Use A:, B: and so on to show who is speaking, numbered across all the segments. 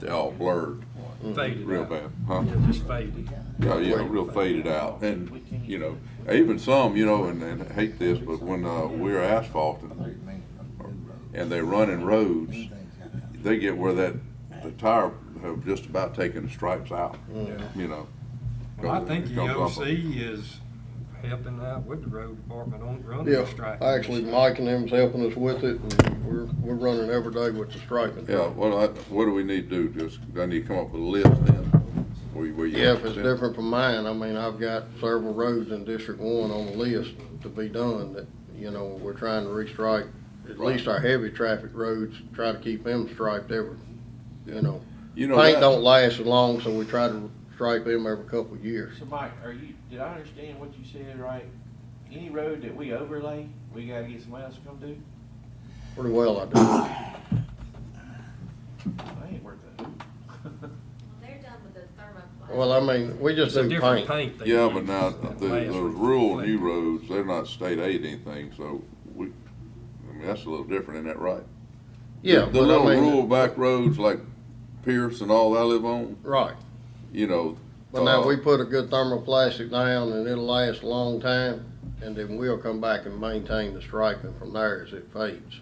A: they all blurred
B: faded
A: real
B: out.
A: bad, huh?
B: Yeah, just faded.
A: Yeah, yeah, real faded out. And, you know, even some, you know, and, and I hate this, but when, uh, we're asphalting and they're running roads, they get where that, the tire have just about taken the stripes out,
B: Yeah.
A: you know.
B: Well, I think
A: It
B: the uh,
A: comes off
B: OC
A: of-
B: is helping out with the road department on running
C: Yeah,
B: the strike.
C: actually, Mike and them's helping us with it, and we're, we're running every day with the striping.
A: Yeah, well, I, what do we need to do? Just, I need to come up with a list then? Where you- where you-
C: Yeah, if it's different from mine, I mean, I've got several roads in District One on the list to be done that, you know, we're trying to restrike. At least our heavy traffic roads, try to keep them striped every, you know.
A: You know,
C: Paint
A: that-
C: don't last as long, so we try to stripe them every couple of years.
D: So Mike, are you, did I understand what you said right? Any road that we overlay, we gotta get somebody else to come do?
C: Pretty well I do.
D: I ain't worth that.
E: They're done with the thermoplastic.
C: Well, I mean, we
B: It's
C: just
B: a
C: do
B: different
C: paint.
B: paint. they
A: yeah,
B: use
A: but now,
B: that
A: the,
B: lasts
A: those
B: with
A: rural new
B: reflect-
A: roads, they're not state aid anything, so we, I mean, that's a little different, isn't that right?
C: Yeah,
A: The
C: but
A: little
C: I
A: rural
C: mean,
A: back roads like Pierce and all that I live on,
C: right.
A: you know.
C: But now
A: uh,
C: we put a good thermoplastic down and it'll last a long time, and then we'll come back and maintain the striping from there as it fades.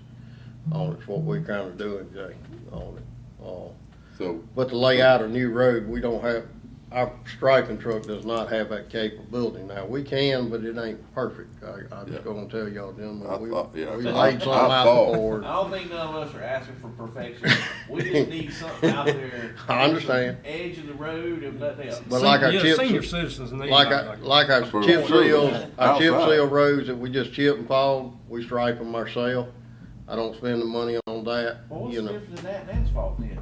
C: On it's what we're kinda doing, Jay, on it. Uh,
A: So,
C: But to lay out a new road, we don't have, our striping truck does not have that capability now. We can, but it ain't perfect. I, I
A: Yeah.
C: just gonna tell y'all
A: I
C: gentlemen, we,
A: thought- yeah,
C: we
A: I-
C: laid something
A: I
C: out
A: thought-
C: before.
D: I don't think none of us are asking for perfection. We just need something out there.
C: I understand.
D: Edge of the road and nothing else.
C: But like
B: Sen-
C: our
B: yeah,
C: chips-
B: Senior citizens need.
C: Like
B: that,
C: I, like our
A: For
C: chip
A: sure.
C: seals, our chip
A: Outside.
C: seal roads that we just chip and fall, we stripe them ourselves. I don't spend the money on that,
D: Well, what's
C: you
D: the
C: know.
D: difference in that and asphalt then?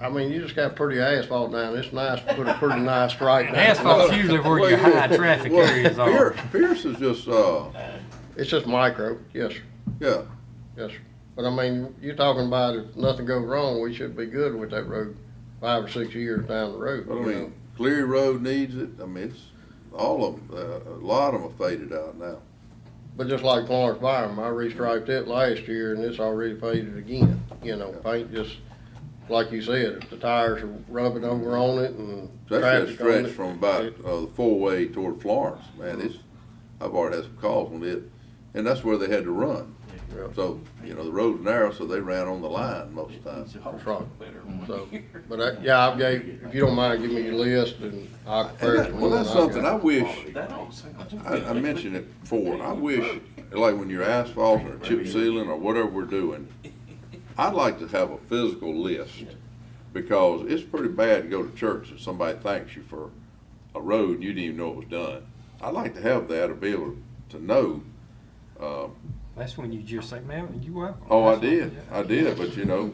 C: I mean, you just got pretty asphalt down, it's nice to put a pretty nice stripe down.
F: And asphalt's usually where your high traffic
A: well,
F: areas are.
A: Pier- Pierce is just, uh,
C: It's just micro, yes, sir.
A: yeah,
C: yes. sir. But I mean, you're talking about if nothing goes wrong, we should be good with that road five or six years down the road.
A: but I
C: you know.
A: mean, Cleary Road needs it, I mean, it's, all of them, uh, a lot of them are faded out now.
C: But just like Florence Byram, I restriped it last year and it's already faded again, you know, paint just, like you said, if the tires are rubbing over on it and
A: That's that
C: traffic on
A: stretch
C: it,
A: from about,
C: it-
A: uh, the four-way toward Florence, man, it's, I've already had some calls on it, and that's where they had to run.
C: Yeah.
A: So, you know, the road's narrow, so they ran on the line most of the time.
C: That's right.
D: Better.
C: So, but I, yeah, I gave, if you don't mind, give me your list and I'll
A: And
C: compare it
A: that,
C: to
A: well,
C: one
A: that's
C: I
A: something I
C: got.
A: wish,
D: That don't sound.
A: I, I mentioned it before, and I wish, like when you're asphalt or chip sealing or whatever we're doing, I'd like to have a physical list, because it's pretty bad to go to church and somebody thanks you for a road and you didn't even know it was done. I'd like to have that, to be able to know, um,
F: That's when you just say, man, you welcome.
A: Oh, I
F: That's when-
A: did, I did, but you know,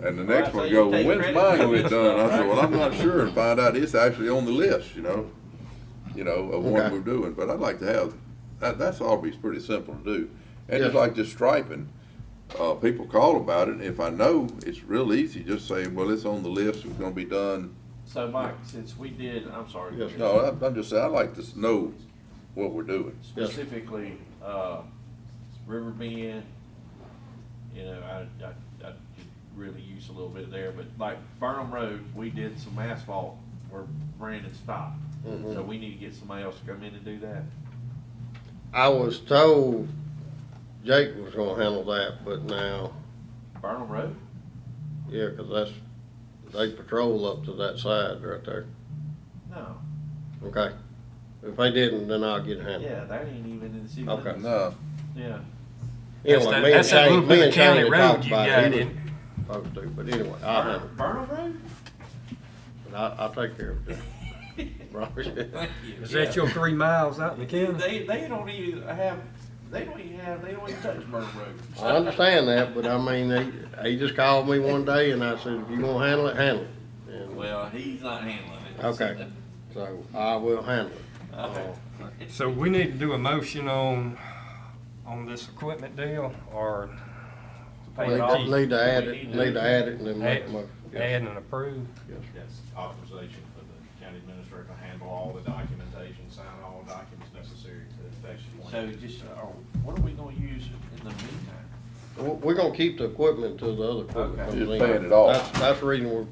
A: and the
D: Well,
A: next
D: so
A: one
D: you
A: go,
D: take
A: well, when's mine
D: credit for
A: gonna
D: this
A: get done? I
D: stuff,
A: said, well,
D: right?
A: I'm not sure, and find out it's actually on the list, you know, you know, of what
C: Okay.
A: we're doing, but I'd like to have, that, that's always pretty simple to do. And just
C: Yes.
A: like just striping, uh, people call about it, if I know, it's real easy, just say, well, it's on the list, it's gonna be done.
D: So Mike, since we did, I'm sorry.
C: Yes, sir.
A: No, I- I'm just saying, I'd like to s- know what we're doing.
D: specifically, uh, River Bend, you know, I, I, I could really use a little bit there, but like Burnham Road, we did some asphalt where Brandon stopped. So we need to get somebody else to come in and do that.
C: I was told Jake was gonna handle that, but now,
D: Burnham Road,
C: yeah, 'cause that's, they patrol up to that side right there,
D: no,
C: okay? If they didn't, then I'll get handled.
D: yeah, that ain't even in the city
C: Okay.
D: limits,
A: No,
D: yeah.
F: That's
C: Anyway,
F: that-
C: me and
F: that's that
C: Shane,
F: little
C: me
F: bit
C: and
F: of county
C: Shane had
F: road
C: talked
F: you
C: about
F: got
C: it. He was
F: in.
C: supposed to, but anyway, I'll handle it.
D: Burnham Burnham Road?
C: But I, I'll take care of it. Right.
D: Thank you.
B: Is
D: Yeah.
B: that your three miles out in the county?
D: They, they don't even have, they don't even have, they don't even touch Burnham Road.
C: I understand that, but I mean, he, he just called me one day and I said, if you gonna handle it, handle it. And,
D: Well, he's not handling it.
C: Okay, so I will handle it. Uh,
D: Okay.
B: So we need to do a motion on, on this equipment deal or
D: Pay it
C: Need-
D: off.
C: Need to add
D: We
C: it, need to add it and then make a motion.
B: add and approve?
G: That's authorization for the county administrator to handle all the documentation, sign all documents necessary to effectuate.
D: oh, So just, uh, what are we gonna use in the meantime?
C: We're, we're gonna keep the equipment till the other equipment
D: Okay.
C: comes in.
A: Just paying it off.
C: That's, that's the reason we're